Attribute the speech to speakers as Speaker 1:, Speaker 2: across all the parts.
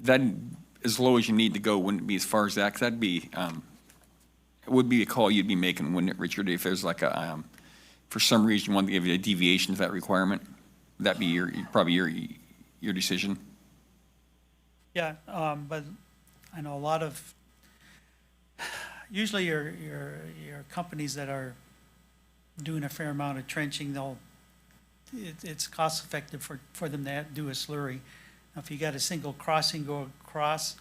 Speaker 1: that, as low as you need to go wouldn't be as far as that, 'cause that'd be, um, it would be a call you'd be making, wouldn't it, Richard, if there's like a, um, for some reason you wanted to give a deviation to that requirement? That'd be your, probably your, your decision?
Speaker 2: Yeah, um, but I know a lot of, usually your, your, your companies that are doing a fair amount of trenching, they'll, it, it's cost effective for, for them to do a slurry. Now, If you got a single crossing go across,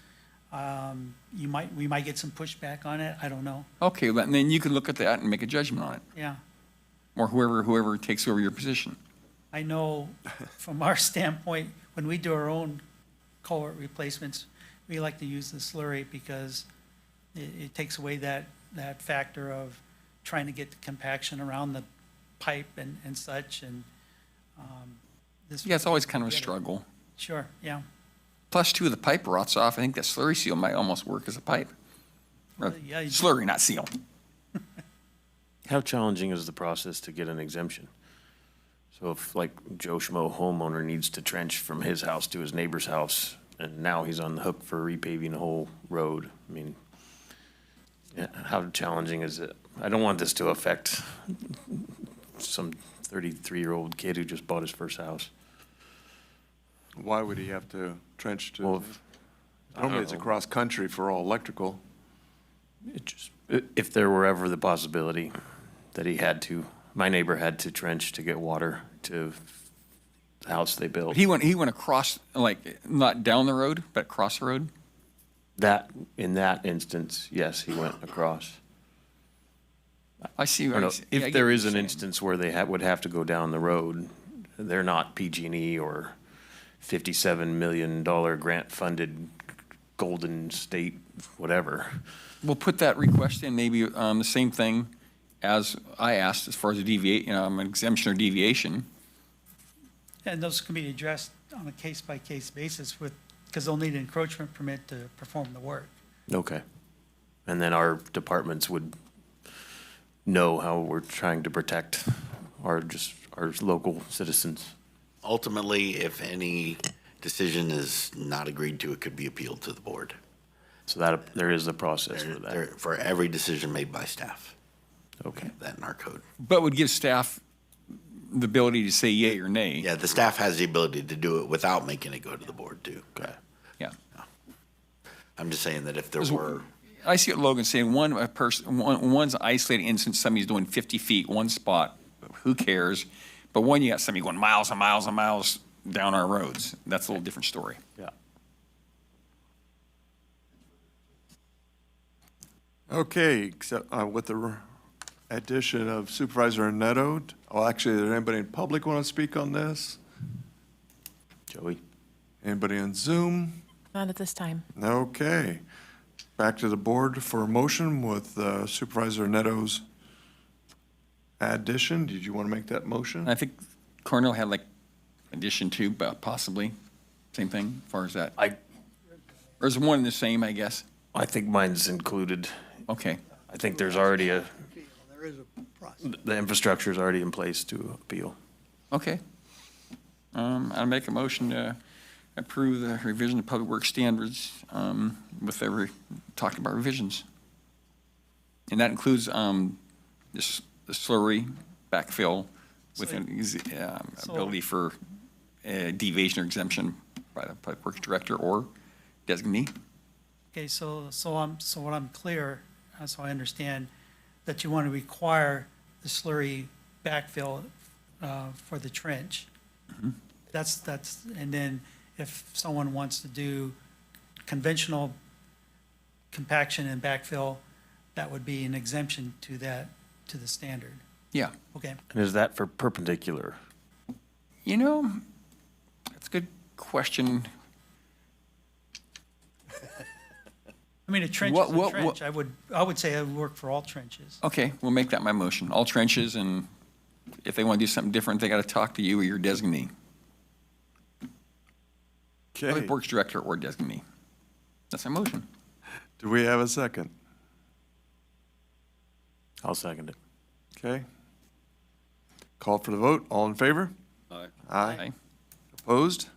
Speaker 2: um, you might, we might get some pushback on it, I don't know,
Speaker 1: Okay, then then you can look at that and make a judgment on it,
Speaker 2: yeah.
Speaker 1: or whoever, whoever takes over your position.
Speaker 2: I know from our standpoint, when we do our own culvert replacements, we like to use the slurry because it, it takes away that, that factor of trying to get the compaction around the pipe and, and such and, um, this.
Speaker 1: Yeah, it's always kind of a struggle.
Speaker 2: Sure, yeah.
Speaker 1: Plus, two of the pipe rots off. I think that slurry seal might almost work as a pipe. Or
Speaker 2: Yeah, you-
Speaker 1: Slurry, not seal.
Speaker 3: How challenging is the process to get an exemption? So if like Joe Schmo homeowner needs to trench from his house to his neighbor's house, and now he's on the hook for repaving the whole road, I mean, yeah, how challenging is it? I don't want this to affect some thirty-three-year-old kid who just bought his first house.
Speaker 4: Why would he have to trench
Speaker 3: Well,
Speaker 4: to,
Speaker 3: if- I don't
Speaker 4: normally it's
Speaker 3: know.
Speaker 4: across country for all electrical.
Speaker 3: It just, i- if there were ever the possibility that he had to, my neighbor had to trench to get water to the house they built.
Speaker 1: He went, he went across, like, not down the road, but across the road.
Speaker 3: That, in that instance, yes, he went across.
Speaker 1: I see.
Speaker 3: I
Speaker 1: what
Speaker 3: don't know,
Speaker 1: he's- yeah, I
Speaker 3: if
Speaker 1: get
Speaker 3: there
Speaker 1: what
Speaker 3: is
Speaker 1: you're
Speaker 3: an
Speaker 1: saying.
Speaker 3: instance where they ha- would have to go down the road, they're not PG&E E or fifty-seven million dollar grant-funded Golden State, whatever.
Speaker 1: We'll put that request in, maybe um, the same thing as I asked as far as a deviate, you know, an exemption or deviation.
Speaker 2: And those can be addressed on a case-by-case basis with, because they'll need an encroachment permit to perform the work.
Speaker 3: Okay. And then our departments would know how we're trying to protect our, just, our local citizens.
Speaker 5: Ultimately, if any decision is not agreed to, it could be appealed to the board.
Speaker 3: So that, there is a process for
Speaker 5: There-
Speaker 3: that.
Speaker 5: For every decision made by staff,
Speaker 3: Okay.
Speaker 5: that in our code.
Speaker 1: But would give staff the ability to say yay or nay.
Speaker 5: Yeah, the staff has the ability to do it without making it go to the board too.
Speaker 1: Yeah.
Speaker 5: I'm just saying that if there
Speaker 1: Is-
Speaker 5: were,
Speaker 1: I see what Logan's saying, one a person, one, one's isolated instance, somebody's doing 50 feet, one spot, who cares? But one, you got somebody going miles and miles and miles down our roads. That's a little different story.
Speaker 3: Yeah.
Speaker 4: Okay, except uh, with the r- addition of Supervisor Neto, oh, actually, is there anybody in public want to speak on this?
Speaker 3: Joey?
Speaker 4: Anybody on Zoom?
Speaker 6: Not at this time.
Speaker 4: Okay. Back to the board for a motion with uh, Supervisor Neto's addition. Did you want to make that
Speaker 1: And I
Speaker 4: motion?
Speaker 1: think Cornell had like addition two, but possibly, same thing, as far as that.
Speaker 3: I,
Speaker 1: Or is one the same, I guess?
Speaker 3: I think mine's included.
Speaker 1: Okay.
Speaker 3: I think there's already a,
Speaker 7: There is a process.
Speaker 3: the infrastructure's already in place to appeal.
Speaker 1: Okay. Um, I'll make a motion to approve the revision of public works standards, um, with every, talking about revisions. And that includes, um, this, the slurry backfill with an, easy, um,
Speaker 2: So-
Speaker 1: ability for, uh, deviation or exemption by the public works director or designee.
Speaker 2: Okay, so, so I'm, so what I'm clear, uh, so I understand, that you want to require the slurry backfill uh, for the trench.
Speaker 1: Mm-hmm.
Speaker 2: That's, that's, and then if someone wants to do conventional compaction and backfill, that would be an exemption to that, to the standard.
Speaker 1: Yeah.
Speaker 2: Okay,
Speaker 3: And is that for perpendicular?
Speaker 1: You know, that's a good question.
Speaker 2: I mean, a trench
Speaker 1: What-
Speaker 2: is
Speaker 1: what-
Speaker 2: a
Speaker 1: what-
Speaker 2: trench, I would, I would say it would work for all trenches.
Speaker 1: Okay, we'll make that my motion. All trenches, and if they want to do something different, they got to talk to you or your designee,
Speaker 4: Okay.
Speaker 1: Public Works Director or designee. That's my motion.
Speaker 4: Do we have a second?
Speaker 3: I'll second it.
Speaker 4: Okay. Call for the vote. All in favor? Aye.
Speaker 1: Aye.
Speaker 4: Opposed?